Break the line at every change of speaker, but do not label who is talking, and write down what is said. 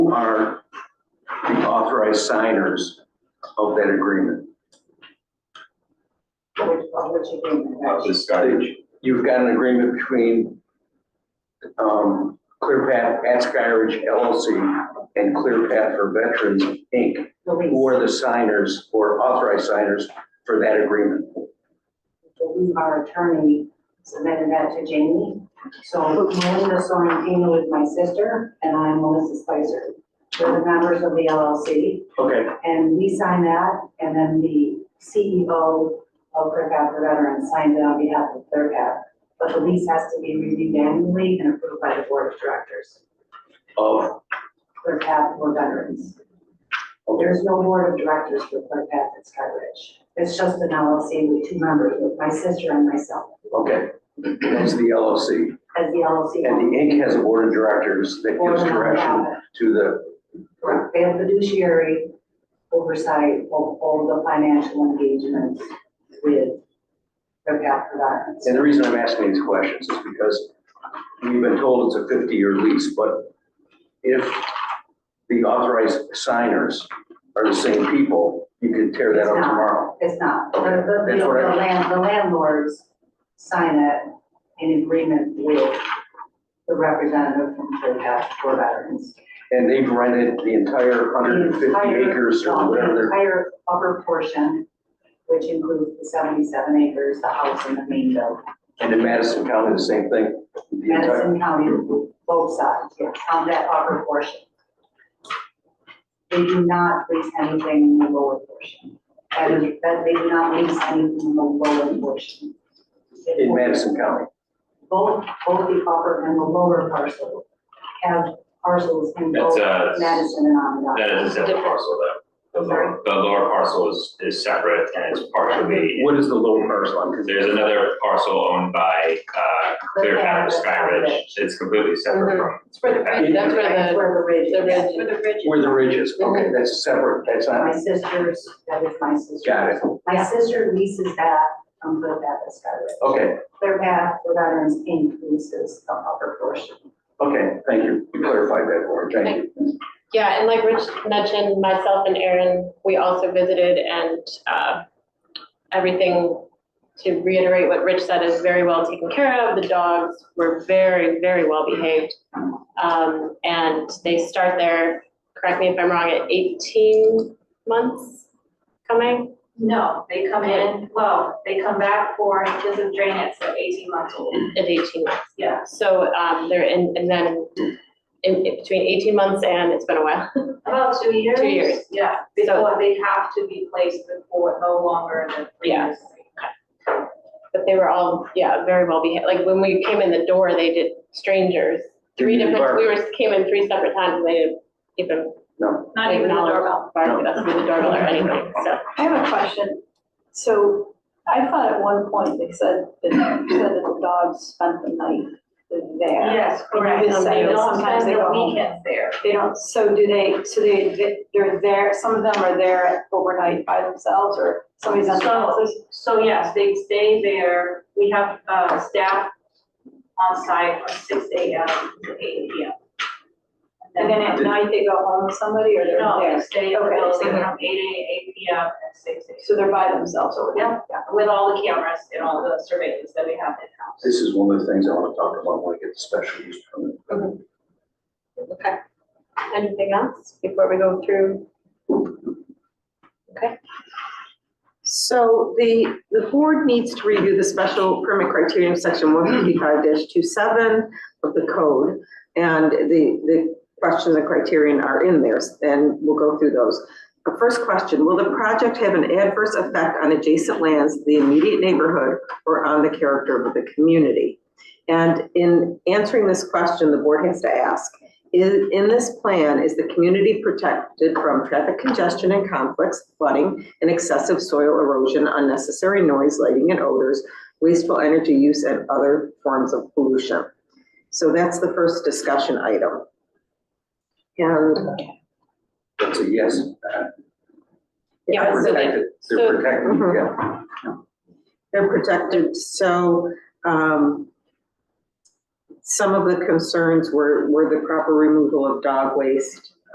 authorized signers of that agreement.
Which, of which agreement,
Of
right?
this garbage.
You've got an agreement between um, Clear Path at Skyridge LLC and Clear Path for Veterans, Inc.,
The
who
lease,
are the signers or authorized signers for that agreement.
believe our attorney submitted that to Jamie. So Melinda Sorrentino is my sister, and I'm Melissa Spicer. We're the members of the LLC,
Okay,
and we signed that, and then the CEO of Clear Path for Veterans signed it on behalf of Clear Path. But the lease has to be reviewed annually and approved by the Board of Directors.
of,
Clear Path for Veterans. There's no board of directors for Clear Path at Sky Ridge. It's just an LLC with two members, with my sister and myself,
okay, that's the LLC.
as the LLC.
And the Inc. has a board of directors that
Or
gives direction
nonprofit.
to the,
Correct. They have fiduciary oversight of all the financial engagements with Clear Path for Veterans.
and the reason I'm asking these questions is because we've been told it's a 50-year lease, but if the authorized signers are the same people, you could tear that up
It's not.
tomorrow.
It's not. The,
Okay,
the,
that's
the
what I-
land- the landlords sign it in agreement with the representative from Clear Path for Veterans.
And they've rented the entire 150
entire-
acres
well,
or whatever
The
they're
entire upper portion, which includes the seventy-seven acres, the house and the main building.
And in Madison County, the same thing. The entire-
Madison County, both sides, yes, on that upper portion. They do not lease anything in the lower portion. That is, that they do not lease anything in the lower portion.
In Madison County.
Both, both the upper and the lower parcel have parcels in
That's
both
a,
Madison and Onondaga.
that is a separate parcel though. The
Sorry?
lower, the lower parcel is, is separate and it's partially,
What is the lower parcel? I'm confused.
there's another parcel owned by, uh, Clear Path or Sky Ridge. Mm-hmm. It's completely separate from,
It's for the bridge, that's
Uh,
That's
where
where the
the,
ridge
the
is.
ridge, where the bridge is.
Where the ridge is, okay, that's separate, that's
My
not,
sister's, that is my sister's.
got it,
My sister leases that from Clear Path to Skyridge.
okay,
Clear Path for Veterans Inc. leases the upper portion.
okay, thank you, you clarified that for me, thank you.
Yeah, and like Rich mentioned, myself and Aaron, we also visited and, uh, everything, to reiterate what Rich said, is very well taken care of. The dogs were very, very well behaved. Um, and they start their, correct me if I'm wrong, at eighteen months coming?
No, they come in, well, they come back for just drain it, so eighteen months old,
At eighteen months.
yeah.
So, um, they're in, and then in, in between eighteen months and it's been a while.
About two years.
Two years.
Yeah, before they have to be placed before no longer than three
Yeah.
years.
But they were all, yeah, very well behaved. Like when we came in the door, they did strangers. Three
Didn't
different,
bark.
we were, came in three separate times and they didn't even
No,
Not even the
Acknowledge.
doorbell.
bark at us with the doorbell or anything, so.
I have a question. So I thought at one point they said, that they said that the dogs spent the night there.
Yes, correct.
You just said
They
that
don't
sometimes
spend
they
the
go home.
weekends there.
They don't, so do they, so they, they're there, some of them are there overnight by themselves or somebody's on the
So,
houses?
so yes, they stay there. We have, uh, staff on site from six AM to eight PM.
And then at
Did-
night they go home with somebody or they're
No, they
there?
stay in the
Okay.
building from eight AM, eight PM and six AM.
So they're by themselves over there?
with all the cameras and all the surveillance that we have in-house.
this is one of the things I wanna talk about when I get the special use permit.
Okay. Anything else before we go through?
So the, the board needs to review the special permit criteria in section one fifty-five 27 of the code. And the, the questions and criterion are in there, and we'll go through those. The first question, will the project have an adverse effect on adjacent lands, the immediate neighborhood, or on the character of the community? And in answering this question, the board has to ask, is, in this plan, is the community protected from traffic congestion and conflicts, flooding, and excessive soil erosion, unnecessary noise, lighting and odors, wasteful energy use, and other forms of pollution. So that's the first discussion item. And
That's a yes.
Yeah,
They're
so they-
protected, they're
so-
protected,
Mhm.
yeah.
they're protected, so, um, some of the concerns were, were the proper removal of dog waste